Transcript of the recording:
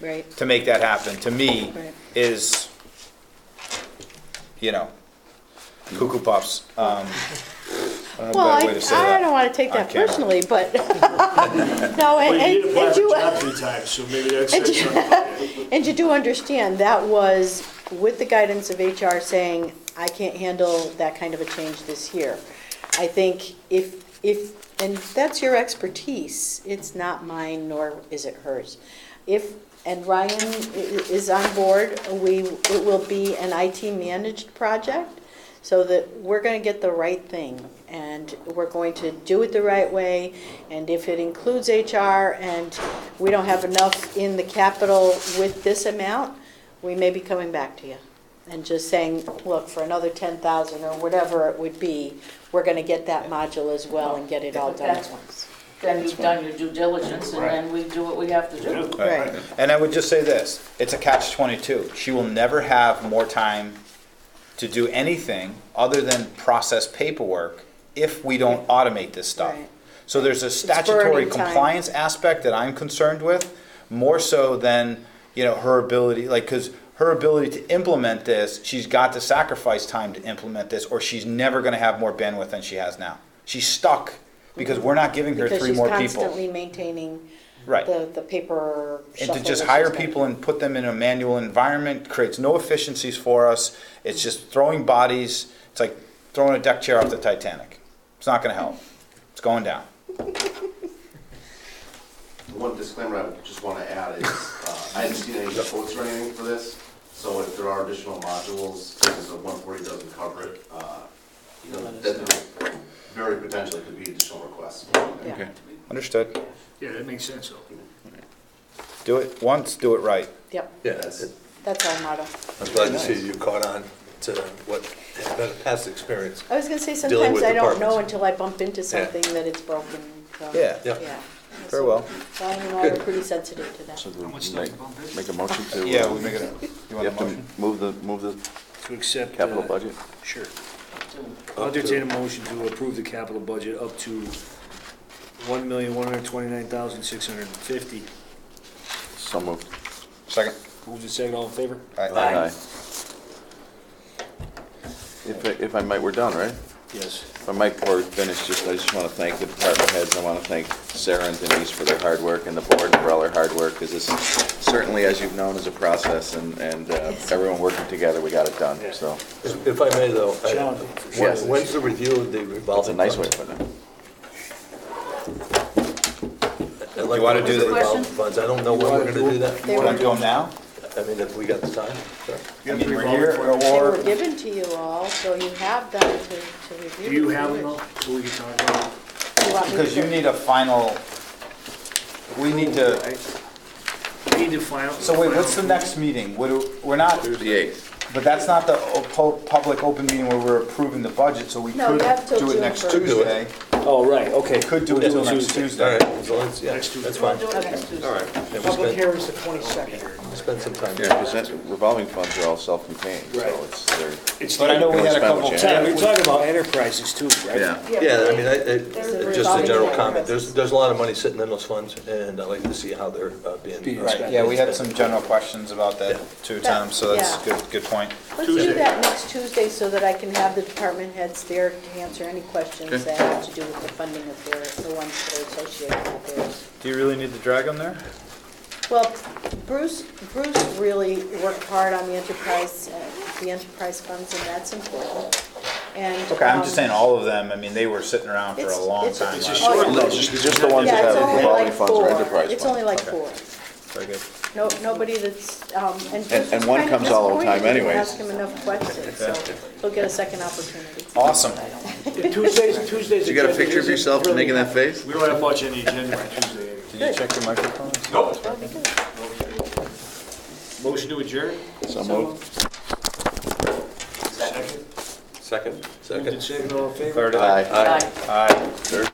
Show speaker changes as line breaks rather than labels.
Right.
to make that happen, to me,
Right.
is, you know, cuckoo puffs. Um, I don't know
Well,
a
I,
better way to say that.
I don't want to take that
on camera.
personally, but, no,
Well,
and, and
you need to
and
black
you,
it out three times, so maybe that's
and
says
you-
something.
and you do understand, that was with the guidance of HR saying, I can't handle that kind of a change this year. I think if, if, and that's your expertise, it's not mine, nor is it hers. If, and Ryan i- i- is on board, we, it will be an IT-managed project, so that we're gonna get the right thing, and we're going to do it the right way, and if it includes HR, and we don't have enough in the capital with this amount, we may be coming back to you, and just saying, look, for another ten thousand or whatever it would be, we're gonna get that module as well and get it all done at once.
Then you've done your due diligence, and then we do what we have to do.
Right.
Right.
And I would just say this, it's a catch twenty-two. She will never have more time to do anything other than process paperwork if we don't automate this stuff.
Right.
So there's a
burning
statutory
time.
compliance aspect that I'm concerned with, more so than, you know, her ability, like, cause her ability to implement this, she's got to sacrifice time to implement this, or she's never gonna have more bandwidth than she has now. She's stuck because we're not giving her
Because
three
she's
more people.
constantly maintaining
Right.
the, the paper
And
shuffle.
to just
that
hire
she's got.
people and put them in a manual environment creates no efficiencies for us. It's just throwing bodies. It's like throwing a deck chair off the Titanic. It's not gonna help. It's going down.
The One disclaimer I just want to add is, uh, I haven't seen any quotes or anything for this, so if there are additional modules, and the one forty doesn't cover it, uh, you know, then there very potentially could be additional requests.
Yeah.
Understood.
Yeah, that makes sense, though.
Do it once, do it right.
Yep,
Yeah, that's it.
that's our motto.
I'm glad to see you caught on to what, has been a past experience.
I was gonna say, sometimes
Dealing with
I don't know
departments.
until I bump into something that it's broken, so.
Yeah.
Yeah.
Very well.
Ryan and I are pretty sensitive to that.
So
How
then
much
make-
does it bump it?
Make a motion to. uh,
Yeah, we make it. You
You
want
have
the
to
motion?
move the, move the
To accept.
capital
uh,
budget?
Sure. I'll entertain a motion to approve the capital budget up to one million, one hundred twenty-nine thousand, six hundred and fifty.
So moved.
Second.
Move to second, all in favor?
All right.
Aye. If, I- if I might, we're done, right?
Yes.
If I might, before we finish, just, I just want to thank the department heads. I want to thank Sarah and Denise for their hard work and the board for all their hard work, because this certainly, as you've known, is a process, and, and uh, everyone working together, we got it done, so.
If if I may, though. I-
Challenging, for
sure.
when- When's the review of the
That's a
revolving?
nice way
funds?
to put it.
I'd like
You wanna
know
do
the
the-
revolving Funds, I don't know when we're gonna do that.
They
You wanna
were-
do them now?
I mean, if we got the time, sure.
I mean, we're here
They
or,
were given to you all, so you have them to, to review.
Do you have them, all, so we can talk about it?
You want me to-
because you need a final, we need to,
We Need to final.
so wait, what's the
final-
next meeting? What do- We're not,
The eighth.
but that's not the o- pu- public open meeting where we're approving the budget, so we
No,
could
you have till
do
June
it next
first. To
do it.
Tuesday.
Oh, right, okay.
Could do it till next
All
Tuesday.
right, as long as, yeah,
Next
that's
Tuesday.
fine.
Do it next Tuesday.
All right. Yeah, we
Public
spent-
hearing's the 22nd.
Spend some time.
Yeah, because that revolving funds are all self-contained,
Right.
so it's, they're,
It's
But I know we had a couple.
Tom, you're talking about enterprises too, right?
yeah.
Yeah, I mean, I, I-
a
just a
revolving
general
door.
comment, there's, there's a lot of money sitting in those funds, and I'd like to see how they're uh, being.
Being
uh,
Right, yeah, we had some general questions about that too, Tom, so that's
Yeah.
good, good point.
Let's
Tuesday.
do that next Tuesday so that I can have the department heads there to answer any questions that have to do with the funding of their, the ones that are associated with theirs.
Do you really need to drag them there?
Well, Bruce, Bruce really worked hard on the enterprise, uh, the enterprise funds, and that's important. And.
Okay, I'm
um,
just saying, all of them, I mean, they were sitting around for a
It's-
long
it's-
time.
It's
a
last-
short
Oh, yeah.
list.
Just the ones
Yeah,
that
it's
have
only
revolving
like
funds or
four.
enterprise
It's
funds.
only like four.
Very good.
No, nobody that's, um, and Bruce
and
was
one
kind of
comes all the time
disappointed we didn't
anyways.
Ask him enough questions, so he'll get a second opportunity.
Awesome.
Tuesdays, Tuesdays.
You got a
agenda
picture of
isn't
yourself
really-
making that face?
We don't have much on the agenda on Tuesday.
Did you check your microphone?
That'll be good.
Motion to adjourn?
So moved.
Second?
Moved and
Second.
seconded, all in favor?
Third eye.
Aye.
Bye.
Aye.